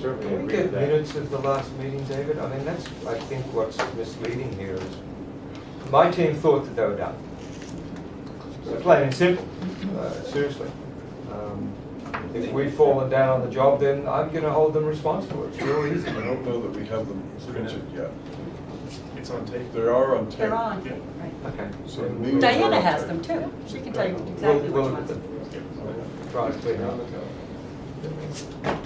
certainly Can we agree with get that. minutes of the last meeting, David? I mean, that's, I think what's misleading here is, my team thought that they were done. So Plain and simple, uh, seriously. Um, If we've fallen down on the job, then I'm gonna hold them responsible, it's real easy. I don't know that we have them printed yet. It's on tape. They are on tape. They're on, Yeah. right. Okay. So the meetings are Diana on has tape. them too. She can tell you We'll- exactly which we'll ones. Try to clean up. Mm-hmm.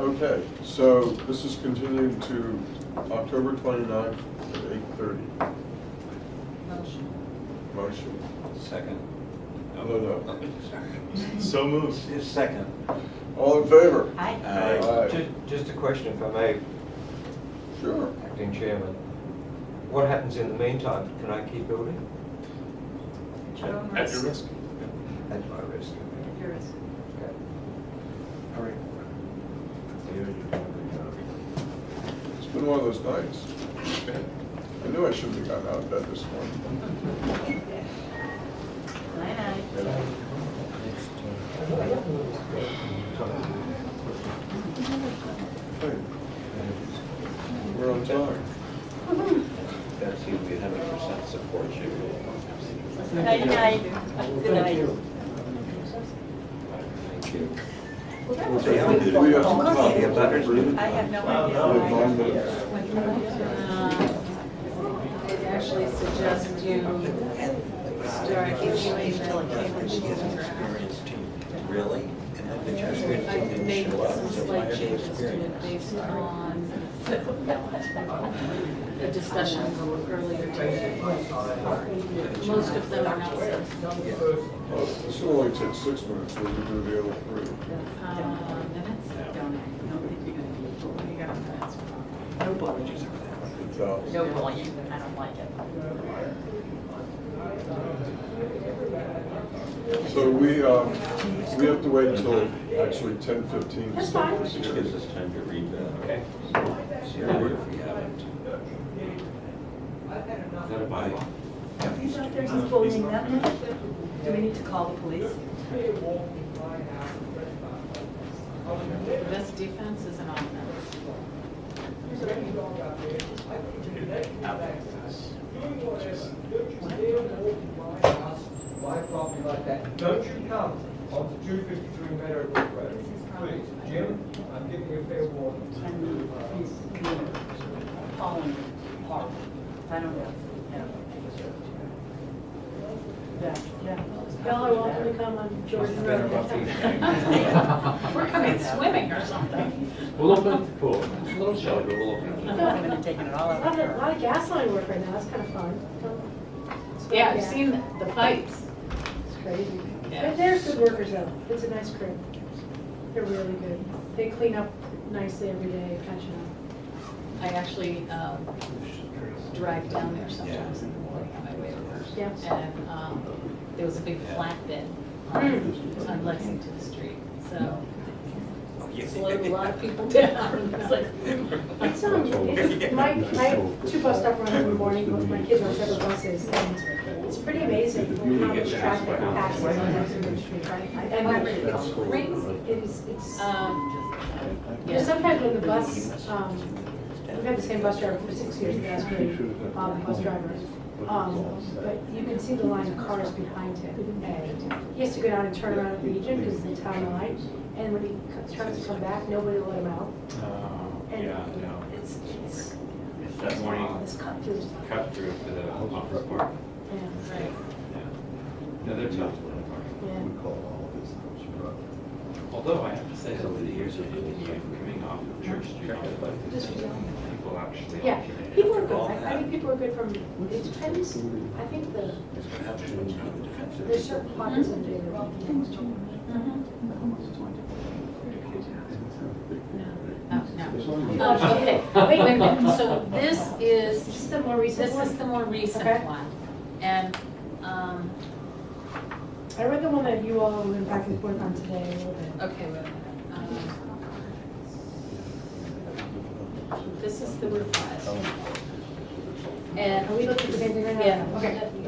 Okay, so this is continuing to October 29th at 8:30. Motion. Motion. Second. No, no. So moved. It's second. All in favor? Aye. Aye. Aye. Ju- Just a question, if I may, Sure. acting chairman. What happens in the meantime? Can I keep building? Your own At your risk. At my risk. At your risk. Okay. It's been one of those nights. I knew I shouldn't have gotten out of bed this morning. Aye, aye. Hey, We're on time. That seems to be hundred percent support you. Night, night. Good night. Thank you. Well, that We're was They done. only did really We it have once. some thoughtful. Lucky time. the butters didn't. I have no We idea. have nine why. minutes. Uh, I'd actually suggest you start doing the Cambridge Union. Really? I've made some slight changes to it based on the discussion earlier today. Most of them are not. Oh, This will only take six minutes, we'll do the other three. Uh, Minutes? Don't, I don't think you're gonna be, able to. you got minutes. No bullying. Good job. No bullying. I don't like it. So we, um, we have to wait until actually ten fifteen. That's fine. Which gives us time to read the. Okay. See if we have it. Is that a bylaw? He's out there, he's bullying that much. Do we need to call the police? The best defense is an offense. My property like that, don't you come onto two fifty-three Meadow Brook Road. Please, Jim, I'm giving you a fair warning. And he's falling apart. I don't know. Yeah, yeah. Y'all are welcome to come on Jordan Better about these Road. We're coming swimming or something. We'll open up the pool. It's a little shelter, we'll open I'm not even taking it all A lot out. of, a lot of gas line work right now, it's kind of fun. Yeah, I've seen the pipes. It's crazy. Yeah. But there's good workers though, it's a nice crew. They're really good. They clean up nicely every day, catching up. I actually um, drive down there sometimes in the morning on my way over. Yeah. And um, there was a big flatbed Hmm. on on Lexington Street, so it slowed a lot of people down. It's like, It's, um, it's, my, I have two bus stop runs every morning, but my kids on separate buses, and it's pretty amazing how much traffic passes on Lexington Street. And it's crazy, it's, it's. um, There's yeah. Sometimes when the bus, um, we've had the same bus driver for six years, that's great, um, bus driver. Um, but you can see the line of cars behind him, and he has to go down and turn around at Legion, because it's the town line. And when he co- tries to come back, nobody will let him out. And Um, Yeah, no, It's, it's, it's that morning it's cut through, cut through to the office park. yeah, Right. Yeah. No, they're tough. yeah. Although I have to say, over the years, I've been here, coming off of Church Street, I've liked this. People actually. Yeah, alternate. people are good, I, I think people are good from, it depends, I think the, there's certain pockets of data. Mm-hmm. No, no. Um, Okay, wait, wait, wait. So this is. Just the more recent This one. is the more recent Okay. one. And, um, I read the one that you all went back and forth on today a little bit. okay, wait a minute. Um, This is the revised. And Are we looking at the same thing right now? Yeah. Okay.